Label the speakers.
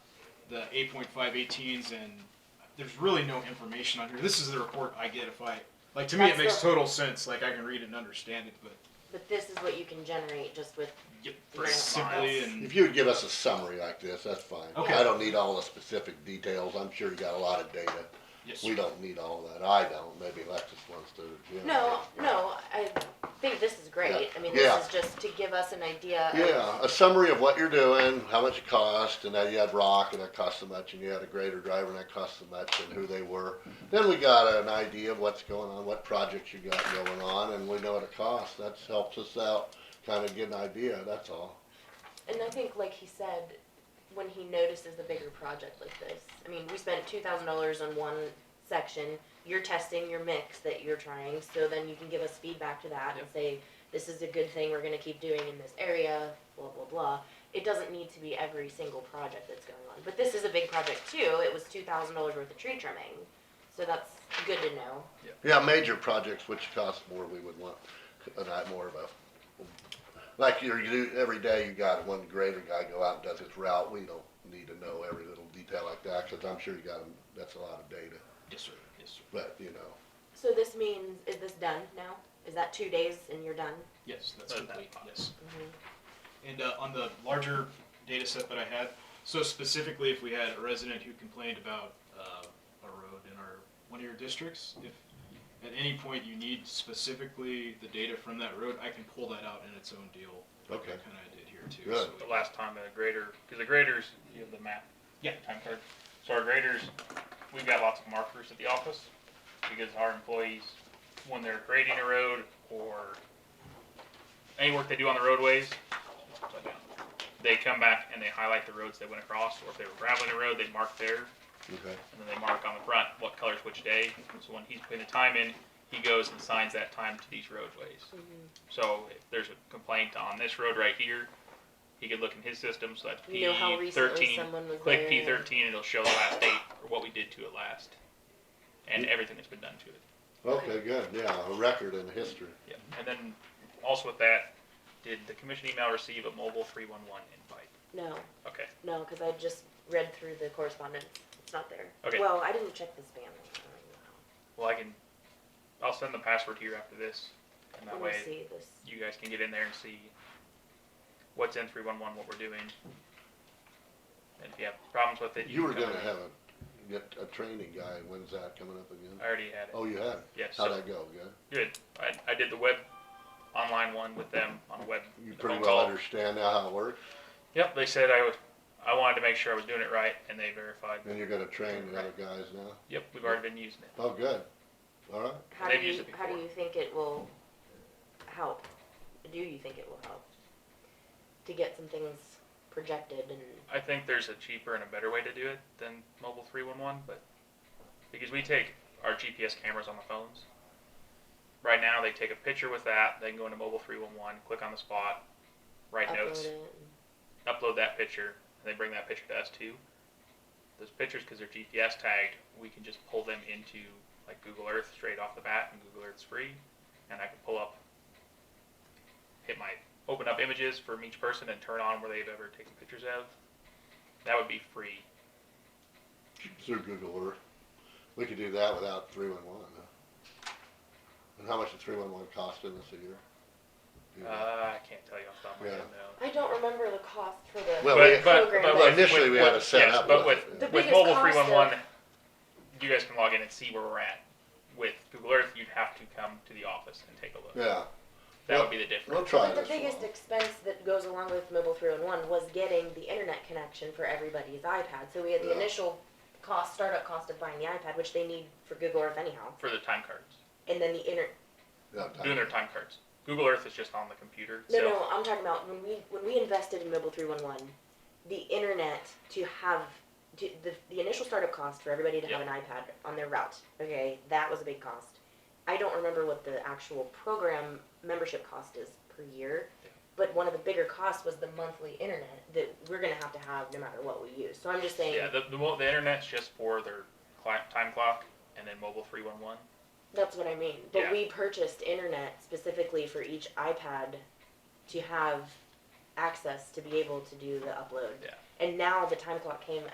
Speaker 1: the 8.518s, and there's really no information on here. This is the report I get if I like. To me,
Speaker 2: That's
Speaker 1: it makes
Speaker 2: the-
Speaker 1: total sense. Like I can read it and understand it, but
Speaker 2: But this is what you can generate just with,
Speaker 1: yep, very
Speaker 2: Yeah.
Speaker 1: simply and
Speaker 3: If you would give us a summary like this, that's fine.
Speaker 1: Okay.
Speaker 3: I don't need all the specific details, I'm sure you got a lot of data.
Speaker 1: yes,
Speaker 3: We don't need all that, I don't, maybe Alexis wants to. you
Speaker 2: no,
Speaker 3: know.
Speaker 2: no, I think this is great. I mean, this
Speaker 3: Yeah.
Speaker 2: is just to give us an idea of.
Speaker 3: Yeah, a summary of what you're doing, how much it cost, and that you had rock and that cost so much, and you had a grader driver and that cost so much, and who they were. Then we got an idea of what's going on, what projects you got going on, and we know what it costs, that helps us out, kinda get an idea, that's all.
Speaker 2: And I think, like he said, when he notices a bigger project like this, I mean, we spent two thousand dollars on one section. You're testing your mix that you're trying, so then you can give us feedback to that and
Speaker 1: Yep.
Speaker 2: say, this is a good thing we're gonna keep doing in this area, blah, blah, blah. It doesn't need to be every single project that's going on, but this is a big project too. It was two thousand dollars worth of tree trimming, so that's good to know.
Speaker 3: Yeah, major projects which cost more, we would want, a night more of a, like you're, you, every day you got one grader guy go out and does his route, we don't need to know every little detail like that, cause I'm sure you got, that's a lot of data,
Speaker 1: yes, sir, yes, sir,
Speaker 3: but, you know,
Speaker 2: So this means, is this done now? Is that two days and you're done?
Speaker 1: yes, that's
Speaker 4: That's
Speaker 1: complete,
Speaker 4: fine.
Speaker 1: yes. And uh, on the larger data set that I had, so specifically if we had a resident who complained about uh, a road in our, one of your districts, if at any point you need specifically the data from that road, I can pull that out in its own deal. Like I
Speaker 3: Okay.
Speaker 1: kind of did here too.
Speaker 3: Good.
Speaker 1: so we-
Speaker 4: The last time a grader, because the graders, you have the map.
Speaker 1: Yeah.
Speaker 4: Time card. So our graders, we've got lots of markers at the office because our employees, when they're grading a road or any work they do on the roadways, they come back and they highlight the roads they went across, or if they were graveling a road, they'd mark there
Speaker 3: okay.
Speaker 4: and then they mark on the front what color's which day. So when he's putting the time in, he goes and signs that time to these roadways.
Speaker 2: Mhm.
Speaker 4: So if there's a complaint on this road right here, he could look in his system, so that's P
Speaker 2: You know how recently
Speaker 4: thirteen.
Speaker 2: someone was
Speaker 4: Click
Speaker 2: there.
Speaker 4: P thirteen and it'll show the last date or what we did to it last. And
Speaker 2: Mm-hmm.
Speaker 4: everything that's been done to it.
Speaker 3: Okay, good, yeah, a record in history.
Speaker 4: Yeah. And then also with that, did the commission email receive a mobile three one one invite?
Speaker 2: No,
Speaker 4: Okay.
Speaker 2: no, because I just read through the correspondence. It's not there.
Speaker 4: Okay.
Speaker 2: Well, I didn't check the spam. I don't know.
Speaker 4: Well I can I'll send the password here after this and that
Speaker 2: Let
Speaker 4: way
Speaker 2: me see this.
Speaker 4: you guys can get in there and see what's in three one one, what we're doing. And if you have problems with it,
Speaker 3: You
Speaker 4: can
Speaker 3: were
Speaker 4: come
Speaker 3: gonna
Speaker 4: in.
Speaker 3: have a, get a training guy, when's that coming up again?
Speaker 4: I already had it.
Speaker 3: Oh, you had, it.
Speaker 4: Yes.
Speaker 3: how'd that go, good?
Speaker 4: Good. I, I did the web online one with them on web.
Speaker 3: You
Speaker 4: the
Speaker 3: pretty
Speaker 4: phone
Speaker 3: well
Speaker 4: call.
Speaker 3: understand now how it works,
Speaker 4: Yep. They said I was. I wanted to make sure I was doing it right, and they verified.
Speaker 3: and you're gonna train the other guys now?
Speaker 4: Yep. We've already been using it.
Speaker 3: Oh, good, all right.
Speaker 2: How
Speaker 4: They've
Speaker 2: do
Speaker 4: used
Speaker 2: you,
Speaker 4: it
Speaker 2: how do
Speaker 4: before.
Speaker 2: you think it will help? Do you think it will help? To get some things projected and,
Speaker 4: I think there's a cheaper and a better way to do it than mobile three one one, but because we take our GPS cameras on the phones. Right now, they take a picture with that. They can go into mobile three one one, click on the spot, write
Speaker 2: upload
Speaker 4: notes,
Speaker 2: it. and-
Speaker 4: upload that picture, and they bring that picture to us too. Those pictures, because they're GPS tagged, we can just pull them into like Google Earth straight off the bat, and Google Earth's free, and I can pull up, hit my open up images from each person and turn on where they've ever taken pictures of. That would be free.
Speaker 3: through Google Earth. We could do that without three one one. And how much did three one one cost in this a year? Do you know?
Speaker 4: Uh, I can't tell you off the top of my head
Speaker 3: Mm-hmm. Yeah.
Speaker 4: now.
Speaker 2: I don't remember the cost for the,
Speaker 3: Well,
Speaker 4: But,
Speaker 2: we-
Speaker 4: but, but
Speaker 2: Program.
Speaker 3: Well,
Speaker 4: with-
Speaker 3: initially we
Speaker 4: with-
Speaker 3: had
Speaker 4: with-
Speaker 3: a
Speaker 4: yes,
Speaker 3: setup
Speaker 4: but
Speaker 3: with
Speaker 4: with
Speaker 3: it.
Speaker 2: The
Speaker 4: with
Speaker 2: biggest
Speaker 4: mobile
Speaker 2: cost
Speaker 4: three
Speaker 2: of-
Speaker 4: one one, you guys can log in and see where we're at. With Google Earth, you'd have to come to the office and take a look.
Speaker 3: Yeah,
Speaker 4: That would be the difference.
Speaker 3: we'll try
Speaker 2: but the
Speaker 3: this
Speaker 2: biggest
Speaker 3: one.
Speaker 2: expense that goes along with mobile three oh one one was getting the internet connection for everybody's iPad. So we had the
Speaker 3: Yeah.
Speaker 2: initial cost, startup cost of buying the iPad, which they need for Google Earth anyhow.
Speaker 4: for the time cards.
Speaker 2: And then the inter,
Speaker 3: No,
Speaker 4: Doing
Speaker 3: time.
Speaker 4: their time cards. Google Earth is just on the computer.
Speaker 2: No,
Speaker 4: so
Speaker 2: no, I'm talking about when we when we invested in Mobile three one one, the internet to have to, the the initial startup cost for everybody to have an iPad on their route. Okay, that was a big cost. I don't remember what the actual program membership cost is per year, but one of the bigger costs was the monthly internet that we're gonna have to have no matter what we use. So I'm just saying
Speaker 4: Yeah, the, the, mo- the internet's just for their clock, time clock and then mobile 311.
Speaker 2: that's what I mean. But
Speaker 4: Yeah.
Speaker 2: we purchased internet specifically for each iPad to have access to be able to do the upload.
Speaker 4: Yeah.
Speaker 2: And now the time clock came